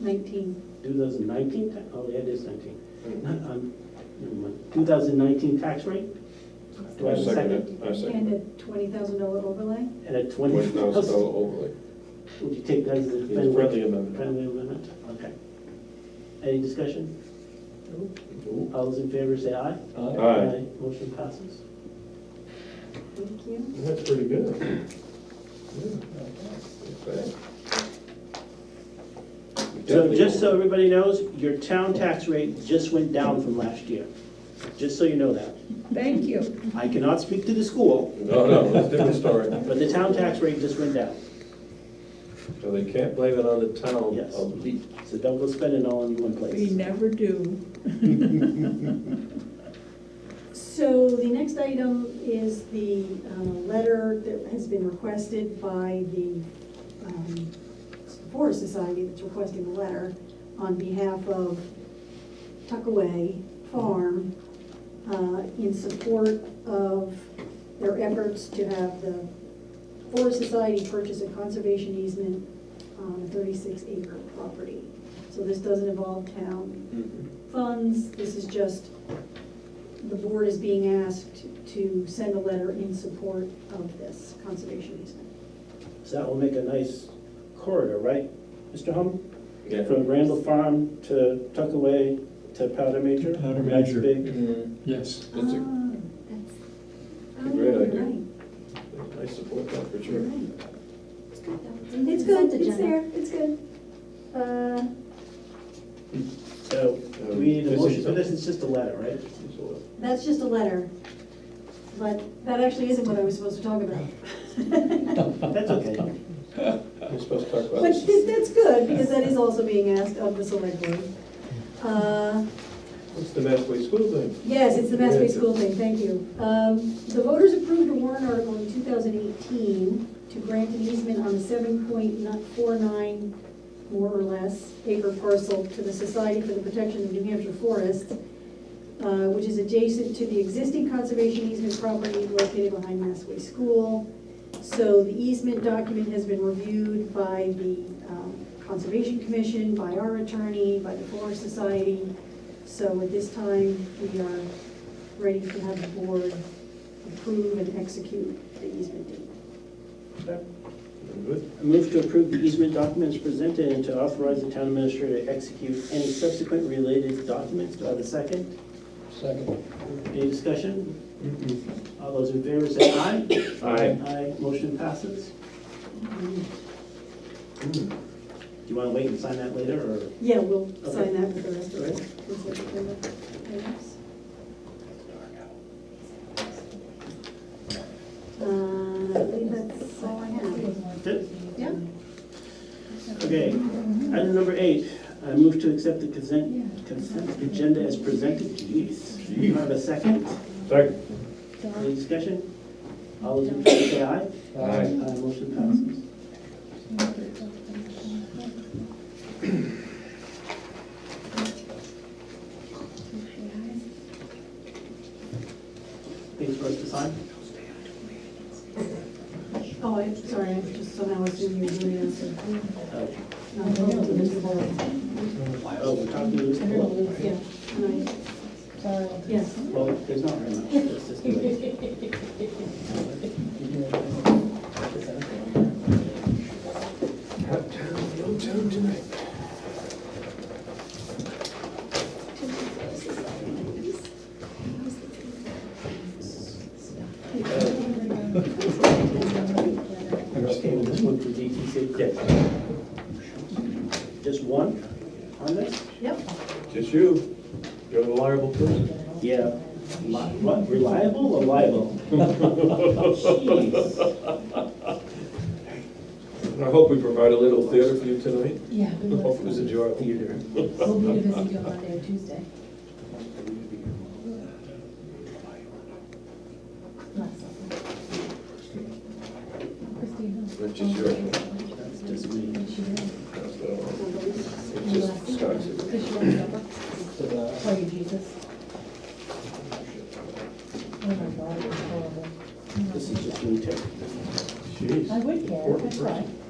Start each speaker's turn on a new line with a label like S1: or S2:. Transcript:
S1: 19.
S2: 2019, ta- oh, yeah, it is 19. Not, um, never mind. 2019 tax rate Do I have a
S3: second it.
S2: second?
S3: I second
S1: And
S3: it.
S1: a $20,000 overlay?
S2: at a
S3: Twenty thousand dollar
S2: 20,000.
S3: overlay.
S2: Would you take that as a
S3: It's a friendly amendment.
S2: friendly amendment? Okay. Any discussion?
S3: Ooh.
S2: All those in favor say aye.
S3: Aye.
S2: Motion passes.
S1: Thank you.
S3: That's pretty good. Yeah. Okay.
S2: So
S3: We definitely
S2: just so
S3: will-
S2: everybody knows, your town tax rate just went down from last year. Just so you know that.
S1: Thank you.
S2: I cannot speak to the school,
S3: No, no, that's a different story.
S2: but the town tax rate just went down.
S3: So they can't blame it on the town
S2: Yes.
S3: of Lee.
S2: So don't go spending all in one
S4: We
S2: place.
S4: never do.
S1: So the next item is the uh, letter that has been requested by the um, Forest Society that's requesting the letter on behalf of Tuckaway Farm uh, in support of their efforts to have the Forest Society purchase a conservation easement on a thirty-six acre property. So this doesn't involve town
S2: Mm-hmm.
S1: funds, this is just, the board is being asked to send a letter in support of this conservation easement.
S2: So that will make a nice corridor, right, Mr. Hum?
S3: Yeah.
S2: From Randall Farm to Tuckaway to Powder Major?
S5: Powder
S2: Nice
S5: Major.
S2: big-
S3: Mhm.
S5: Yes.
S3: That's a-
S1: Ah, that's-
S3: a
S1: oh,
S3: great
S1: you're
S3: idea.
S1: right,
S3: I support that for
S1: you're
S3: sure.
S1: right.
S6: It's good though.
S1: It's good, it's there, it's good. Uh,
S2: So, do we need a
S3: Um,
S2: motion for this? It's just a letter, right?
S1: That's just a letter, but that actually isn't what I was supposed to talk about.
S2: That's okay.
S3: We're supposed to talk about
S1: But
S3: this.
S1: th- that's good, because that is also being asked of the select board. Uh,
S3: It's the Massway School thing.
S1: Yes, it's the Massway School thing, thank you. Um, The voters approved a warrant article in 2018 to grant an easement on a 7.49, more or less, acre parcel to the Society for the Protection of New Hampshire Forests, uh, which is adjacent to the existing conservation easement property located behind Massway School. So the easement document has been reviewed by the um, Conservation Commission, by our attorney, by the Forest Society. So at this time, we are ready to have the board approve and execute the easement deed.
S3: Good.
S2: I move to approve the easement documents presented and to authorize the town administrator to execute any subsequent related documents. Do I have a second?
S3: Second.
S2: Any discussion?
S3: Mm-hmm.
S2: All those in favor say aye.
S3: Aye.
S2: Aye, motion passes.
S3: Mm.
S2: Do you want to wait and sign that later, or?
S1: Yeah, we'll sign that with the rest of
S2: Alright.
S1: the consent agenda items. Uh, I believe that's all I have.
S2: Good.
S1: Yeah?
S2: Okay, item number eight, I move to accept the consent, consent agenda as presented. Jeez, do you have a second?
S3: Second.
S2: Any discussion? All those in favor say aye.
S3: Aye.
S2: Aye, motion passes. Things for us to sign?
S1: Oh, I'm sorry, I just somehow assumed you were doing this. and-
S2: Oh,
S1: no, I'm talking to Mr. Bullock.
S2: Oh, we're talking to this pool.
S1: Yeah, and I- yes.
S2: Well, there's not very much. It's just the way-
S3: Hot town, no town tonight.
S2: Okay, well, this one for DTC. Just one on this?
S1: Yep.
S3: Just you. You're the liable person.
S2: Yeah. Li- What, reliable or liable? Jeez.
S3: I hope we provide a little theater for you tonight.
S6: Yeah. we
S3: I
S6: will.
S3: hope it was a jar of theater.
S6: We'll be to visit you on Monday or Tuesday. Last summer. Christina.
S3: Which is your-
S2: That's just me.
S6: She did.
S3: That's what I want. It's
S6: Last
S3: just
S6: summer.
S3: Scott's.
S6: Because she went over. Oh, you Jesus. Oh my God, it was horrible.
S2: This is just me too.
S3: Jeez.
S6: I would care, I'd try.